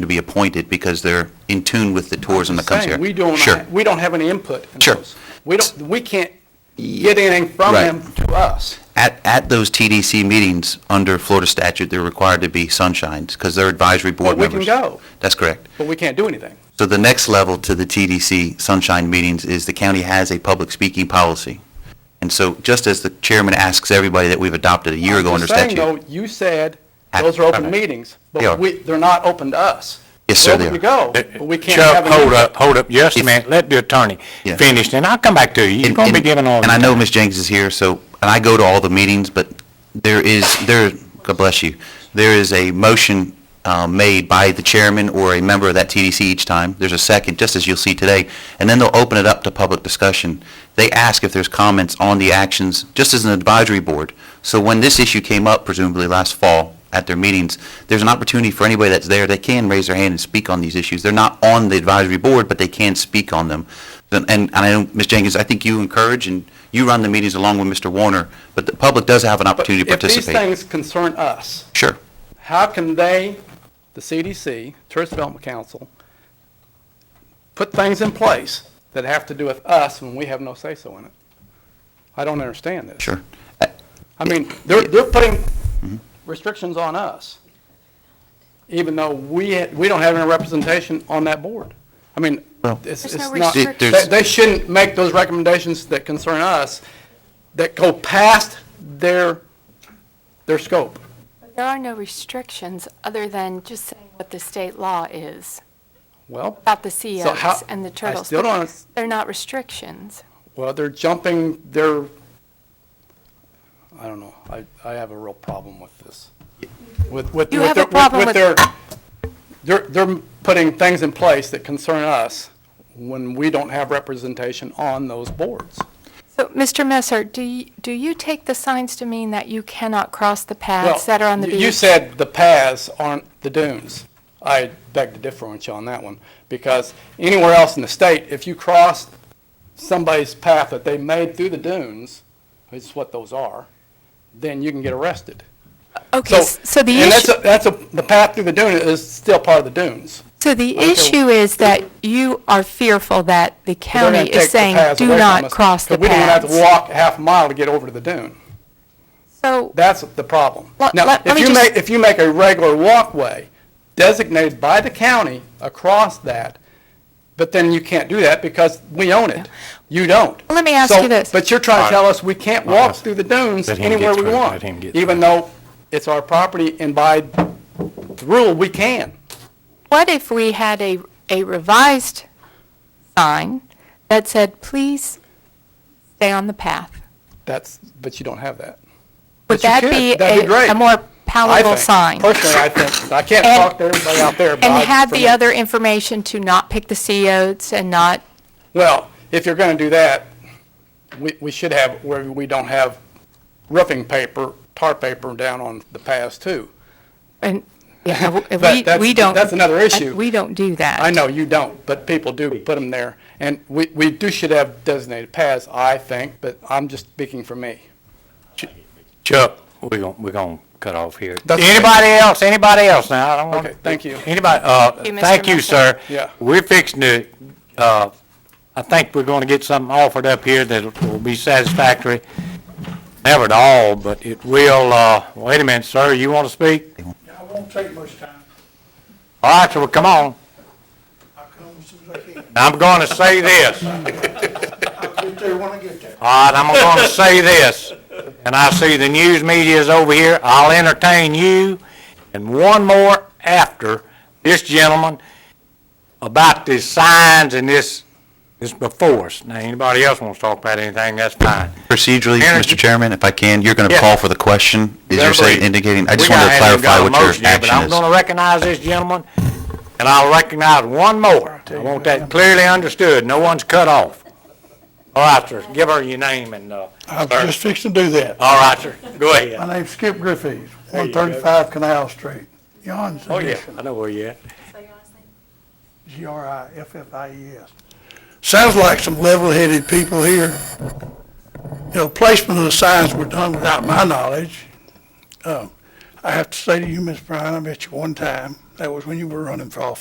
to be appointed because they're in tune with the tourism that comes Saying here. We don't, Sure, we don't have any input in Sure. those. We don't, we can't get anything from Right. them to us. at, at those TDC meetings, under Florida statute, they're required to be sunshines because they're advisory board But we can members. go, That's correct. but we can't do anything. So the next level to the TDC sunshine meetings is the county has a public speaking policy. And so just as the chairman asks everybody that we've adopted a year ago I'm under just saying, statute. though, You said Ah, those are open alright. meetings, They are. but we, they're not open to us. Yes, sir, they They're open to are. go, but we can't Uh, Chuck, have any hold input. up, hold up, just a If- minute, let the attorney Yeah. finish, then I'll come back to you. You're and- gonna be and- giving all. And I the- know Ms. Jenkins is here, so, and I go to all the meetings, but there is, there, God bless you, there is a motion uh, made by the chairman or a member of that TDC each time. There's a second, just as you'll see today, and then they'll open it up to public discussion. They ask if there's comments on the actions, just as an advisory board. So when this issue came up, presumably last fall, at their meetings, there's an opportunity for anybody that's there, they can raise their hand and speak on these issues. They're not on the advisory board, but they can speak on them. And, and I know, Ms. Jenkins, I think you encourage and you run the meetings along with Mr. Warner, but the public does have an But opportunity to If these participate. things concern us, Sure. how can they, the CDC, Tourist Development Council, put things in place that have to do with us when we have no say-so in it? I don't understand this. Sure. I mean, they're, they're putting restrictions on us, even though we, we don't have any representation on that board. I mean, Well- it's, There's it's no not, restriction. they, There's- they shouldn't make those recommendations that concern us, that go past their, their scope. There are no restrictions other than just saying what the state law is Well, about the So how- CEOs and I the turtles. still don't- They're not restrictions. well, they're jumping their, I don't know, I, I have a real problem with this. With, with, You with have their- a problem with- their, they're, they're putting things in place that concern us when we don't have representation on those boards. So, Mr. Messer, do you, do you take the signs to mean that you cannot cross the Well, paths that are on the you- You beach? said the paths aren't the dunes. I beg to differ on you on that one, because anywhere else in the state, if you cross somebody's path that they made through the dunes, which is what those are, then you can get arrested. Okay, s- so the And that's, issue, a- that's, a- the path through the dune is still part of the dunes. so the okay. issue is that you are fearful that the They're gonna county take the is saying, paths do away from not us, cross the 'cause we don't even have to paths. walk a half mile to get over to the dune. So, That's the problem. Let- Now, let- let if me you just- make, if you make a regular walkway designated by the county across that, but then you can't do that because we own it. You don't. Let me ask So- you this. But you're trying to tell us we can't All right. walk through the dunes Let him anywhere get we through. want, Let him get even though it's our property and by the rule, we can. What if we had a, a revised sign that said, please stay on the path? That's, but you don't have that. Would But you that could. be That'd be great. a, a more I palatable think- sign? Personally, I think, I can't And- talk to everybody out there, but I- And had for the me- other information to not pick the CEOs and not, Well, if you're going to do that, we, we should have, where we don't have roofing paper, tar paper down on the paths too. and, yeah, if But we, that's- we don't. that's another issue. We don't do that. I know you don't, but people do put them there. And we, we do should have designated paths, I think, but I'm just speaking for me. Chuck, we're gonna, we're gonna cut off here. That's okay. Anybody else, anybody else now, I don't want. Okay, thank you. Anybody, uh, Thank you, Mr. thank you, Messer. sir. Yeah. We're fixing to, uh, I think we're gonna get something offered up here that will be satisfactory. Never at all, but it will, uh, wait a minute, sir, you wanna speak? I won't take much time. All right, so come on. I'll come as soon as I can. I'm gonna say this. I'll get there when I get there. All right, I'm going to say this, and I see the news media is over here. I'll entertain you and one more after this gentleman about these signs and this, this before us. Now, anybody else wants to talk about anything, that's fine. Procedurally, Energy- Mr. Chairman, if I can, you're going to Yeah. call for the question, is you're saying Referee. indicating, I just We wanted to got- clarify haven't got a what your motion yet, But action I'm is. going to recognize this gentleman, and I'll recognize one more. I want that clearly understood. No one's cut off. All right, sir, give her your name and, uh, I was just fixing to do that. all right, sir, go ahead. My name's Skip Griffiths, 135 Canal Street, Yon's Oh, yeah, Edition. I know where you're at. G-R-I-F-F-I-E-S. Sounds like some level-headed people here. You know, placement of the signs were done without my knowledge. Um, I have to say to you, Ms. Bryan, I met you one time, That was when you were running for office.